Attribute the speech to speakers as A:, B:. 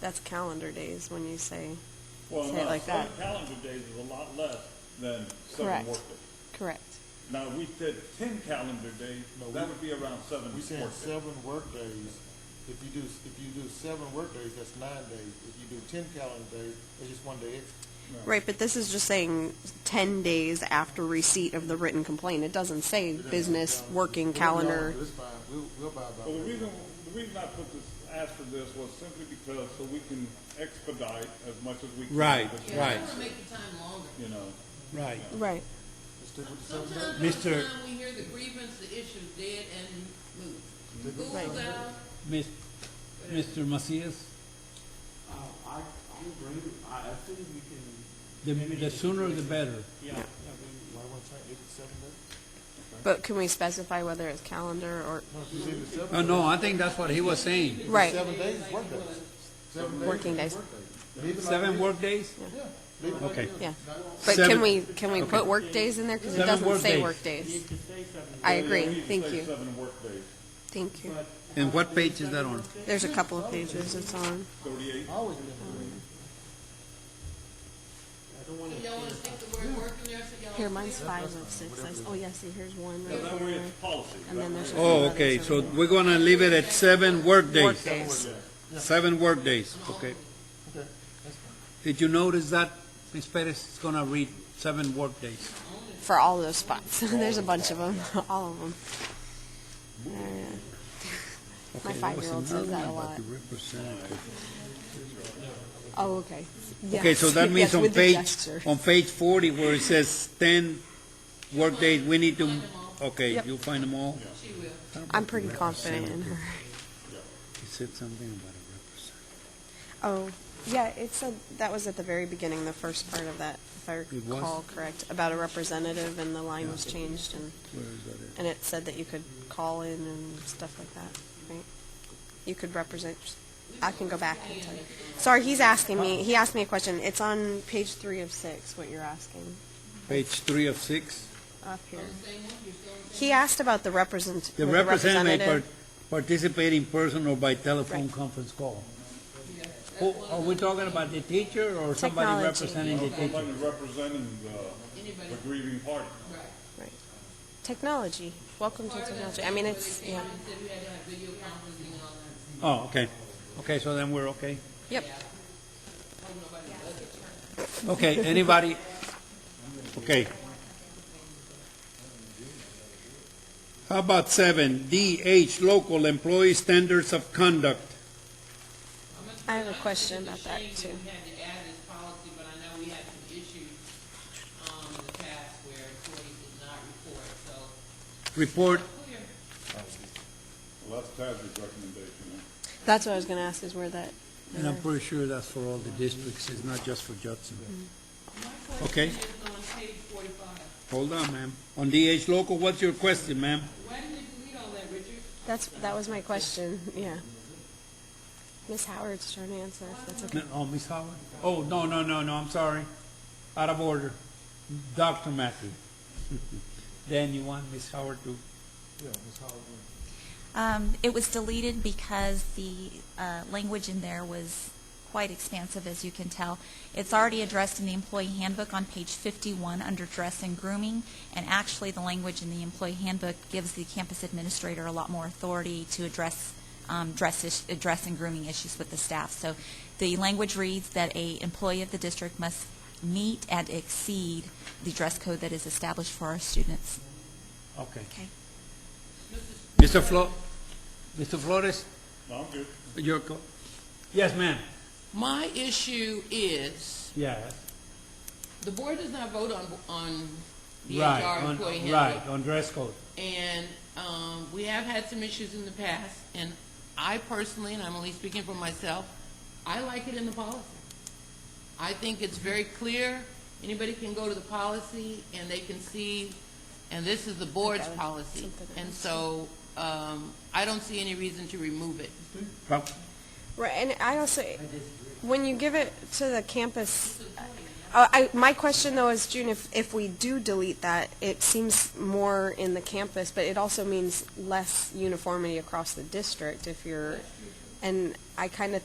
A: that's calendar days when you say,
B: Well,
A: Say it
B: no,
A: like
B: seven
A: that.
B: calendar days is a lot less than seven
A: Correct.
B: workdays.
A: correct.
B: Now, if we said ten calendar days,
C: No,
B: that
C: we-
B: would be around seven
C: We saying
B: workdays.
C: seven workdays, if you do, if you do seven workdays, that's nine days. If you do ten calendar days, it's just one day extra.
A: Right, but this is just saying 10 days after receipt of the written complaint. It doesn't say business working
C: Whatever y'all
A: calendar.
C: do, It's fine, we'll, we'll buy by
B: But the
C: that.
B: reason, the reason I put this, asked for this was simply because, so we can expedite as much as we can.
D: Right,
B: because,
D: right,
E: to make the time longer.
B: You know,
D: right.
A: Right.
C: Let's stick with the seven days.
E: Sometimes,
D: Mr.
E: sometimes we hear the grievance, the issue dead and moved. School's
A: Right.
E: out,
F: Mis- Mr. Macias,
G: Uh, I, I agree, I, I think we can.
F: the,
G: maybe
F: the
G: just-
F: sooner the better.
G: Yeah, yeah, we-
C: Why wanna change it to seven days?
A: But can we specify whether it's calendar or,
C: No, if you say the seven
F: Oh,
C: days-
F: no, I think that's what he was saying.
C: if it's
A: right,
C: Seven days, is work days. Seven days.
A: Working
C: is
A: days.
C: work Leave it like it
F: Seven
C: is.
F: workdays?
C: Yeah. leave it like
D: Okay.
C: it is.
A: yeah.
C: Not-
A: But can
F: Seven-
A: we, can we put
F: okay.
A: work days in there? Because it
F: Seven
A: doesn't
F: work
A: say
F: days.
A: work
G: we
A: days.
G: need to say something.
A: I
B: Yeah,
A: agree.
B: we need to
A: Thank
B: say
A: you.
B: Seven workdays,
A: Thank you.
G: but
F: And
G: how
F: what
G: do we
F: page is
G: set
F: that
G: it
F: on?
G: up there?
A: There's a couple of pages it's on.
B: thirty-eight.
A: Oh.
C: Always been three.
G: I don't wanna.
E: you don't wanna stick the word work in there, so y'all.
A: Here, mine's five of six. I s- Oh, yeah, see, here's one
B: So
A: right
B: that way
A: there.
B: it's policy.
A: And then there's.
D: Oh,
A: another
D: okay, so
A: seven.
D: we're gonna leave it at seven
A: Work
D: workdays,
A: days.
D: seven workdays, okay?
C: Okay, that's fine.
F: Did you notice that Ms. Perez is gonna read seven workdays?
A: for all those spots. There's a bunch of them, all of them. My five-year-old says that a lot. Oh, okay.
D: Okay, so
A: Yes.
D: that means
A: Yes,
D: on
A: with the
D: page,
A: gesture.
D: on page forty where it says ten workdays, we need to, okay,
A: Yep.
D: you'll find them all?
E: She will.
A: I'm pretty confident in her.
D: He said something about a
A: Oh, yeah, it said, that was at the very beginning, the first part of that, if I
D: It was?
A: recall correct, about a representative, and the line was changed, and,
D: representative. Where is that at?
A: and it said that you could call in and stuff like that, right? You could represent, I can go back and tell you. Sorry, he's asking me, he asked me a question. It's on page three of six, what you're asking,
D: Page three of six?
A: up here.
E: Same one, you're still on the
A: He asked about the represent,
D: The representative may par- participate in person or by telephone conference call.
F: Who, are we talking about the teacher or somebody
A: Technology.
F: representing the teacher?
B: Somebody representing the, the grieving party.
A: Technology, welcome to
E: Part of that
A: technology. I
E: thing
A: mean,
E: where
A: it's,
E: they came
A: yeah,
E: in and said we had to have video conferencing and all that.
D: Oh, okay.
F: Okay, so then we're okay.
A: yep.
E: Hope nobody does it.
F: Okay, anybody,
D: Okay. How about seven, D, H, local employee standards of conduct?
A: I have a question about that, too.
E: We had to add this policy, but I know we had some issues, um, in the past where employees did not report, so.
D: Report,
E: Clear.
B: Well, that's Taz's recommendation.
A: That's what I was gonna ask, is where that,
F: and I'm pretty sure that's for all the districts, it's not just for Judson.
D: Mm-hmm. okay,
E: It's on page forty-five.
D: hold on, ma'am. On DH local, what's your question, ma'am?
E: Why did you delete all that, Richard?
A: that's, that was my question, yeah. Miss Howard's trying to answer, if that's okay.
F: No, Oh, Miss Howard? Oh, no, no, no, no, I'm sorry. Out of order. Dr. Matthew. Then you want Miss Howard to,
C: Yeah, Ms. Howard.
H: Um, It was deleted because the uh, language in there was quite expansive, as you can tell. It's already addressed in the employee handbook on page 51 under dress and grooming, and actually, the language in the employee handbook gives the campus administrator a lot more authority to address um, dress is- uh, dress and grooming issues with the staff. So the language reads that a employee of the district must meet and exceed the dress code that is established for our students.
F: okay.
H: Okay.
F: Mr. Flo, Mr. Flores,
B: No, I'm good.
F: your co- Yes, ma'am.
E: My issue is,
F: Yes.
E: the board does not vote on, on the
F: Right,
E: HR
F: on-
E: employee handbook.
F: Right, on dress code.
E: And um, we have had some issues in the past, and I personally, and I'm only speaking for myself, I like it in the policy. I think it's very clear. Anybody can go to the policy and they can see, and this is the board's
A: Okay.
E: policy.
A: Something
E: And
A: else.
E: so um, I don't see any reason to remove it.
F: Prob-
A: Right, and I also, when you give it to the campus, uh, I, my question though is, June, if, if we do delete that, it seems more in the campus, but it also means less uniformity across the district if you're, and I kind of